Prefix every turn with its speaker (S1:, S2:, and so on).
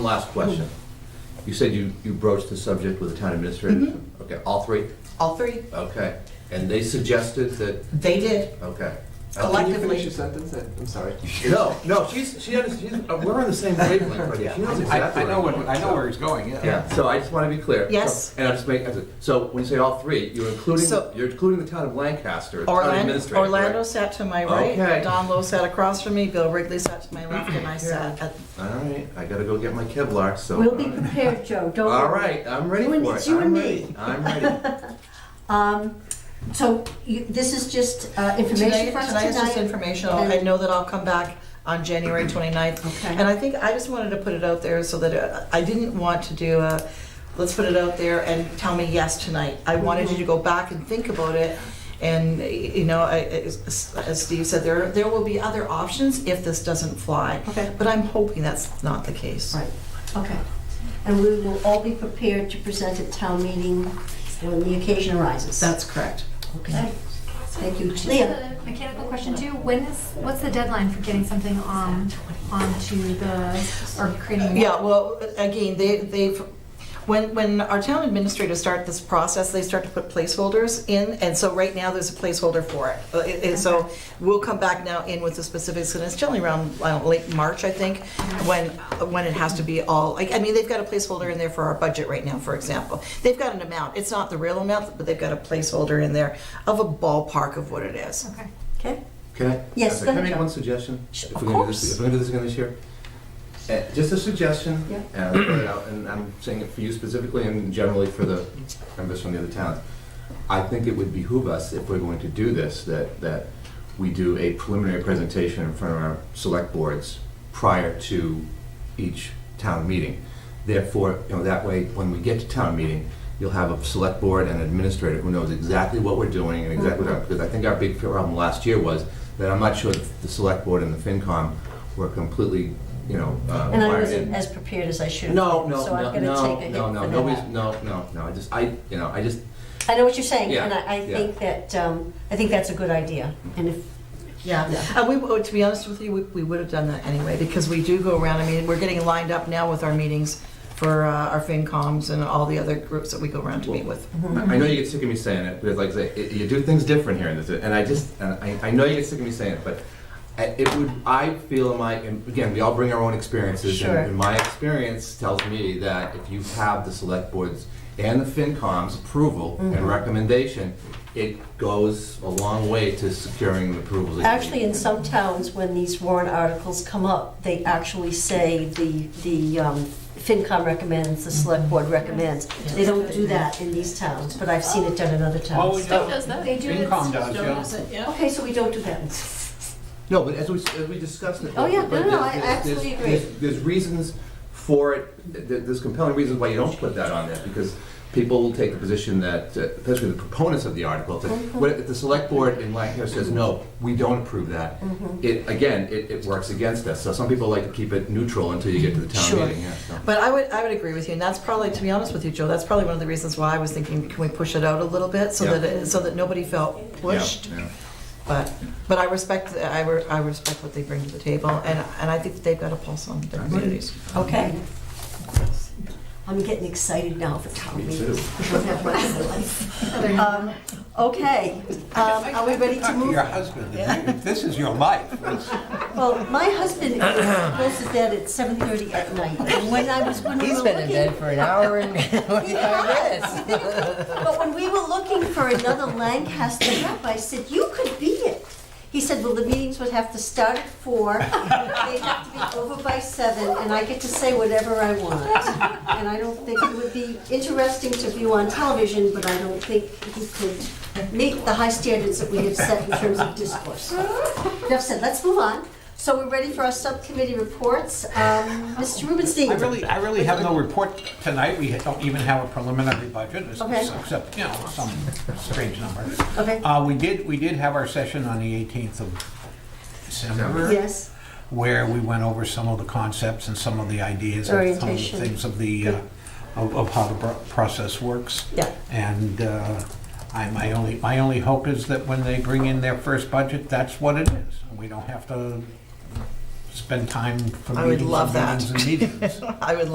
S1: Last question. You said you, you broached the subject with the town administrator? Okay, all three?
S2: All three.
S1: Okay. And they suggested that,
S2: They did.
S1: okay.
S2: Elect-
S3: Can you finish your sentence? I- I'm sorry.
S1: No, no, she's, she under- she's, uh, we're on the same wavelength right here. She knows exactly.
S4: I, I know
S1: what
S4: what,
S1: I'm
S4: I
S1: doing.
S4: know where he's going,
S1: Yeah, so I just want to be clear. So-
S2: Yes.
S1: And I just make, so when you say all three, you're including,
S2: So-
S1: you're including the town of Lancaster, the town
S2: Orlando,
S1: administrator, correct?
S2: Orlando sat to my right,
S1: Okay.
S2: Don Lowe sat across from me, Bill Wrigley sat to my left, and I sat at,
S1: All right, I gotta go get my Kevlar, so.
S5: We'll be prepared, Joe, don't worry.
S1: All right, I'm ready
S5: You and-
S1: for it.
S5: it's you
S1: I'm
S5: and
S1: ready.
S5: me.
S1: I'm ready.
S5: Um, so you, this is just uh,
S2: tonight,
S5: information for us
S2: tonight is just
S5: tonight?
S2: informational, I
S5: And-
S2: know that I'll come back on January 29th.
S5: Okay.
S2: And I think, I just wanted to put it out there so that, uh, I didn't want to do a, let's put it out there and tell me yes tonight. I wanted you to go back and think about it, and, y- you know, I- as as Steve said, there, there will be other options if this doesn't fly.
S5: Okay.
S2: But I'm hoping that's not the case.
S5: Right, okay. And we will all be prepared to present at town meeting when the occasion arises.
S2: That's correct.
S5: Okay, thank you.
S6: Just
S5: Leah?
S6: a mechanical question too. When is, what's the deadline for getting something on, onto the, or creating?
S2: Yeah, well, again, they, they've, when, when our town administrators start this process, they start to put placeholders in, and so right now, there's a placeholder for it. Uh, it- it- so we'll come back now in with the specifics, and it's generally around, I don't know, late March, I think, when, when it has to be all, like, I mean, they've got a placeholder in there for our budget right now, for example. They've got an amount, it's not the real amount, but they've got a placeholder in there of a ballpark of what it is.
S6: Okay.
S5: Okay.
S1: Can I? Uh,
S5: Yes,
S1: Can
S5: go
S1: I
S5: ahead,
S1: make
S5: John.
S1: one suggestion?
S5: Sh-
S1: If
S5: of
S1: we're gonna do this-
S5: course.
S1: If we're gonna do this again this year? Uh, Just a suggestion.
S5: Yeah.
S1: And I'll put it out, and I'm saying it for you specifically and generally for the members from the other towns. I think it would behoove us, if we're going to do this, that, that we do a preliminary presentation in front of our select boards prior to each town meeting. Therefore, you know, that way, when we get to town meeting, you'll have a select board and administrator who knows exactly what we're doing and exactly what, because I think our big problem last year was that I'm not sure the select board and the FinCom were completely, you know, uh,
S5: And I
S1: wired
S5: wasn't
S1: in.
S5: as prepared as I should have.
S1: No,
S5: been,
S1: no,
S5: so I'm
S1: no,
S5: gonna
S1: no,
S5: take a
S1: no,
S5: hit
S1: no,
S5: for
S1: nobody's,
S5: that.
S1: no, no, no, I just, I, you know, I just,
S5: I know what you're saying,
S1: Yeah,
S5: and I, I
S1: yeah.
S5: think that, um, I think that's a good idea. And if,
S2: Yeah, and we, oh, to be honest with you, we, we would have done that anyway, because we do go around, I mean, we're getting lined up now with our meetings for uh, our FinComs and all the other groups that we go around to meet with.
S5: Mm-hmm.
S1: I I know you get sick of me saying it, because like I say, it- you do things different here, in this, and I just, and I, I know you get sick of me saying it, but I- it would, I feel in my, and again, we all bring our own experiences, and
S5: Sure.
S1: and my experience tells me that if you have the select boards and the FinCom's approval
S5: Mm-hmm.
S1: and recommendation, it goes a long way to securing the approvals. that you
S5: Actually,
S1: need.
S5: in some towns, when these warrant articles come up, they actually say the, the um, FinCom recommends, the select board
S7: Mm-hmm.
S5: recommends. They don't do that in these towns, but I've seen it done in other towns.
S4: does that.
S6: They do it.
S4: FinCom does, Oh, yeah.
S5: Okay, so we don't do that.
S1: No, but as we, as we discussed it.
S5: Oh, yeah.
S1: but
S5: No, no,
S1: there's-
S5: I
S1: there's-
S5: absolutely
S1: there's-
S5: agree.
S1: There's reasons for it, th- th- there's compelling reasons why you don't put that on there, because people will take the position that, uh, especially the proponents of the article, that
S5: Mm-hmm.
S1: what if the select board in Lancaster says, no, we don't approve that,
S5: Mm-hmm.
S1: it, again, it, it works against us. So some people like to keep it neutral until you get to the town
S2: Sure.
S1: meeting, yeah, so.
S2: But I would, I would agree with you, and that's probably, to be honest with you, Joe, that's probably one of the reasons why I was thinking, can we push it out a little bit, so
S1: Yeah.
S2: that, it- so that nobody felt
S1: Yeah,
S2: pushed?
S1: yeah.
S2: But, but I respect, I, re- I respect what they bring to the table, and, and I think that they've got a pulse on the communities.
S5: Okay. I'm getting excited now for town
S1: Me
S5: meetings.
S1: too.
S5: Um, Okay, um, are we ready to move?
S4: Your husband, if you- if this is your life,
S5: Well, my husband goes to bed at 7:30 at night, and when I was, when we were
S7: He's been in
S5: looking-
S7: bed for an hour and
S5: He has. But when we were looking for another Lancaster rep, I said, you could be it. He said, well, the meetings would have to start at four, they'd have to be over by seven, and I get to say whatever I want. And I don't think it would be interesting to view on television, but I don't think he could meet the high standards that we have set in terms of discourse. Enough said, let's move on. So we're ready for our subcommittee reports. Um, Mr. Rubenstein.
S4: I really, I really have no report tonight. We don't even have a preliminary budget,
S5: Okay.
S4: except, you know, some strange number.
S5: Okay.
S4: Uh, we did, we did have our session on the 18th of December.
S5: Yes.
S4: where we went over some of the concepts and some of the ideas and some of the
S5: Orientation.
S4: things of the, uh, of of how the pro- process works.
S5: Yeah.
S4: And uh, I, my only, my only hope is that when they bring in their first budget, that's what it is. And we don't have to spend time for
S2: I would
S4: meetings
S2: love
S4: and
S2: that.
S4: meetings and meetings.
S2: I would